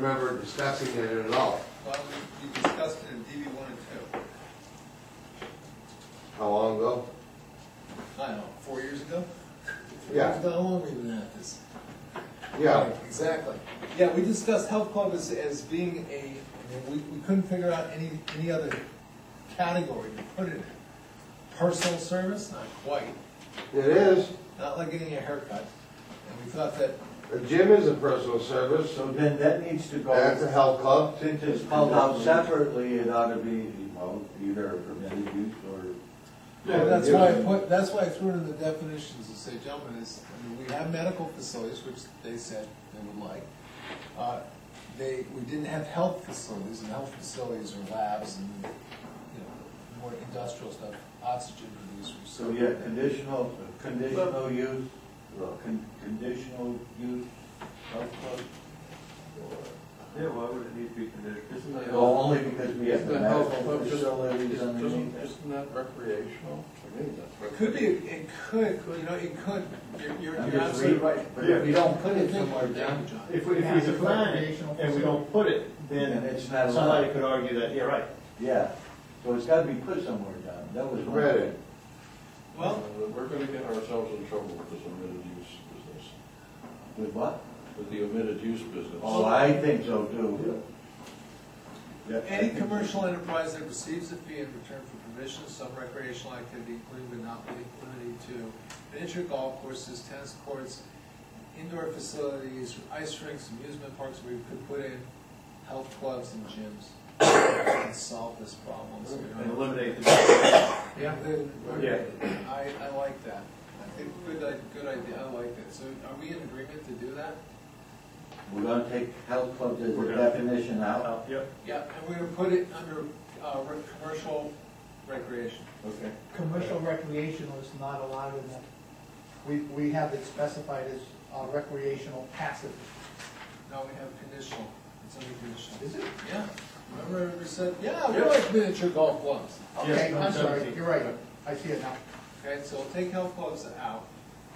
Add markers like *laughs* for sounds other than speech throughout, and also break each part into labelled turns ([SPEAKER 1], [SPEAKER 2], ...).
[SPEAKER 1] discussing it at all.
[SPEAKER 2] Well, we we discussed it in DB one and two,
[SPEAKER 1] How long ago?
[SPEAKER 2] I don't know, four years ago?
[SPEAKER 1] Yeah,
[SPEAKER 3] How long have we been at this?
[SPEAKER 1] yeah.
[SPEAKER 3] Right, Exactly.
[SPEAKER 2] Yeah, we discussed health club as, as being a, I mean, we, we couldn't figure out any, any other category to put it in. Personal service, not quite,
[SPEAKER 1] It is.
[SPEAKER 2] not like getting a haircut, and we thought that,
[SPEAKER 1] A gym is a personal service.
[SPEAKER 4] So then that needs to
[SPEAKER 1] That's a
[SPEAKER 4] go,
[SPEAKER 1] health club.
[SPEAKER 4] since it's called out separately, it ought to be, well, either permitted use or.
[SPEAKER 2] well, that's why I put, that's why I threw it in the definitions to say, gentlemen, is, I mean, we have medical facilities, which they said they would like. Uh, They, we didn't have health facilities, and health facilities are labs and, you know, more industrial stuff, oxygen producers.
[SPEAKER 4] So yeah, conditional, conditional use, well, con- conditional use health club.
[SPEAKER 5] Yeah, why would it need to be conditional? Isn't that-
[SPEAKER 4] Well, only because we have the
[SPEAKER 5] Isn't that health
[SPEAKER 4] medical
[SPEAKER 5] club just-
[SPEAKER 4] facilities
[SPEAKER 5] isn't-
[SPEAKER 4] underneath
[SPEAKER 5] Isn't
[SPEAKER 4] it.
[SPEAKER 5] isn't that recreational? I mean, that's
[SPEAKER 2] It Could be, it could, you know, it could, you're, you're
[SPEAKER 4] I'm
[SPEAKER 2] you're
[SPEAKER 4] just
[SPEAKER 2] absolutely
[SPEAKER 4] re-
[SPEAKER 2] right.
[SPEAKER 4] But if we don't put it somewhere down,
[SPEAKER 6] If we, if we define it and we don't put it,
[SPEAKER 4] Then
[SPEAKER 6] then
[SPEAKER 4] it's not
[SPEAKER 6] somebody
[SPEAKER 4] allowed.
[SPEAKER 6] could argue that, yeah, right.
[SPEAKER 4] yeah, so it's gotta be put somewhere down, that was. one-
[SPEAKER 1] Read it.
[SPEAKER 2] Well,
[SPEAKER 5] Uh, We're gonna get ourselves in trouble with this omitted use business,
[SPEAKER 4] With what?
[SPEAKER 5] with the omitted use business.
[SPEAKER 4] Oh, I think so too. Yeah, I
[SPEAKER 2] any
[SPEAKER 4] think-
[SPEAKER 2] commercial enterprise that receives a fee in return for permission of some recreational activity, including but not limited to miniature golf courses, tennis courts, indoor facilities, ice rinks, amusement parks, where you could put in health clubs and gyms and solve this problem. so we don't-
[SPEAKER 6] And eliminate the,
[SPEAKER 2] Yeah, then,
[SPEAKER 6] Yeah.
[SPEAKER 2] I, I like that. I think, good, i- good idea, I like that. So are we in agreement to do that?
[SPEAKER 4] We're gonna take health clubs as
[SPEAKER 6] We're
[SPEAKER 4] a
[SPEAKER 6] gonna-
[SPEAKER 4] definition out?
[SPEAKER 5] Oh.
[SPEAKER 6] uh, yep,
[SPEAKER 2] Yeah, and we're gonna put it under, uh, re- commercial recreation.
[SPEAKER 4] Okay.
[SPEAKER 7] Commercial recreational is not allowed in that. We, we have it specified as uh, recreational passive.
[SPEAKER 2] Now we have conditional, it's under conditional.
[SPEAKER 7] Is it?
[SPEAKER 2] Yeah, remember we said, yeah, we like miniature golf clubs.
[SPEAKER 7] Okay,
[SPEAKER 6] Yeah,
[SPEAKER 7] I'm sorry,
[SPEAKER 6] seventeen.
[SPEAKER 7] you're right. I see it now.
[SPEAKER 2] Okay, so we'll take health clubs out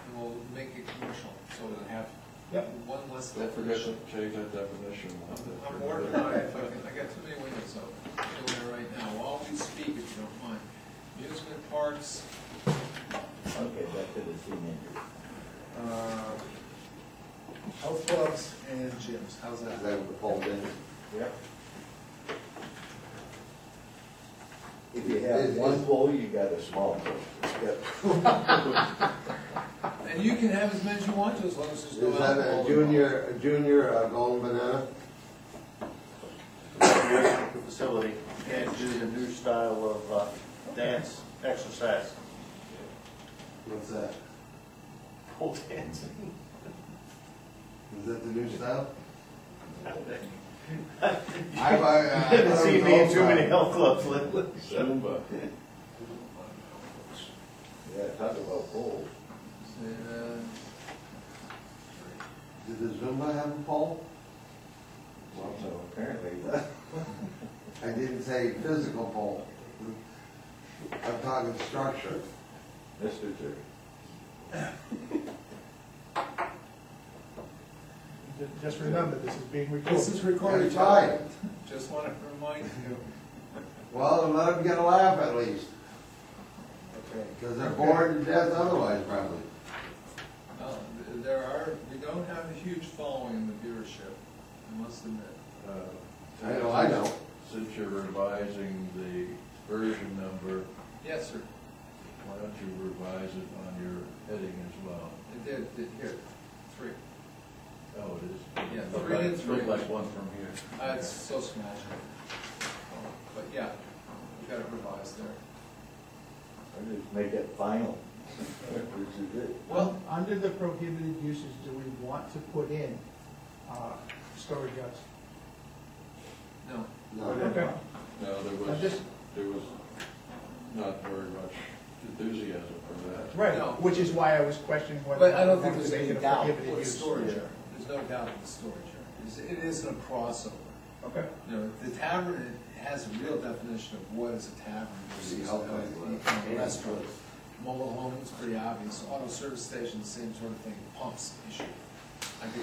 [SPEAKER 2] and we'll make it commercial, so we'll have
[SPEAKER 7] Yep.
[SPEAKER 2] one less
[SPEAKER 5] Don't forget to
[SPEAKER 2] definition.
[SPEAKER 5] change that definition.
[SPEAKER 2] I'm- I'm working on it, but I got too many windows open, I'm doing it right now, while we speak, if you don't mind. Amusement parks,
[SPEAKER 4] Okay, back to the teenager.
[SPEAKER 2] uh, health clubs and gyms, how's
[SPEAKER 1] Is
[SPEAKER 2] that?
[SPEAKER 1] that what the poll did?
[SPEAKER 4] Yep. If you have
[SPEAKER 1] Is-
[SPEAKER 4] one
[SPEAKER 1] is-
[SPEAKER 4] pole, you got a small pole. Yep.
[SPEAKER 2] And you can have as many as you want to, as long as there's no
[SPEAKER 1] Is that
[SPEAKER 2] alcohol.
[SPEAKER 1] a junior, a junior uh, golden banana?
[SPEAKER 6] recreational facility, you can't do the new style of, uh, dance, exercise,
[SPEAKER 1] What's that?
[SPEAKER 6] pole *laughs* dancing.
[SPEAKER 1] Is that the new style?
[SPEAKER 6] You
[SPEAKER 1] I- I- I- I
[SPEAKER 6] haven't seen me in
[SPEAKER 1] don't
[SPEAKER 6] too
[SPEAKER 1] know.
[SPEAKER 6] many health clubs lately.
[SPEAKER 5] Zumba.
[SPEAKER 4] Yeah, talk about poles.
[SPEAKER 2] Uh,
[SPEAKER 1] Did the Zumba have a poll?
[SPEAKER 4] Well, so apparently, *laughs*
[SPEAKER 1] I didn't say physical poll. I'm talking structure.
[SPEAKER 4] Mr. Terry.
[SPEAKER 7] Ju- Just remember, this is being
[SPEAKER 2] This
[SPEAKER 7] recorded.
[SPEAKER 2] is recorded.
[SPEAKER 1] That's right.
[SPEAKER 2] Just want to remind you.
[SPEAKER 1] Well, then let them get a laugh at least,
[SPEAKER 2] Okay.
[SPEAKER 1] because they're bored to death otherwise probably.
[SPEAKER 2] um, There are, we don't have a huge following in the viewership, I must admit.
[SPEAKER 5] Uh,
[SPEAKER 1] I know, I know.
[SPEAKER 5] Since you're revising the version number,
[SPEAKER 2] Yes, sir,
[SPEAKER 5] why don't you revise it on your heading as well?
[SPEAKER 2] it did, did, here, three.
[SPEAKER 5] Oh, it is.
[SPEAKER 2] Yeah,
[SPEAKER 5] Looked
[SPEAKER 2] three
[SPEAKER 5] like-
[SPEAKER 2] and three.
[SPEAKER 5] Looked like one from here.
[SPEAKER 2] Uh, It's so small. But yeah, we got it revised there.
[SPEAKER 4] I just make it
[SPEAKER 5] *laughs*
[SPEAKER 4] final. Which is it.
[SPEAKER 2] Well,
[SPEAKER 7] Under the prohibited uses, do we want to put in uh, storage yards?
[SPEAKER 2] no,
[SPEAKER 1] No.
[SPEAKER 5] No, there
[SPEAKER 7] I'm
[SPEAKER 5] was,
[SPEAKER 7] just-
[SPEAKER 5] there was not very much enthusiasm for that.
[SPEAKER 7] Right,
[SPEAKER 2] No.
[SPEAKER 7] which is why I was questioning whether.
[SPEAKER 2] but I don't
[SPEAKER 7] we
[SPEAKER 2] think there's
[SPEAKER 7] wanted to
[SPEAKER 2] any
[SPEAKER 7] make it a
[SPEAKER 2] doubt
[SPEAKER 7] prohibited
[SPEAKER 2] with
[SPEAKER 7] use.
[SPEAKER 2] storage area. There's no doubt with storage area. It's- It isn't a crossover.
[SPEAKER 7] Okay.
[SPEAKER 2] You know, the tavern has a real definition of what is a tavern versus
[SPEAKER 1] Yeah, okay.
[SPEAKER 2] a- a restaurant. Mobile home is pretty obvious, auto service station, same sort of thing, pumps issue.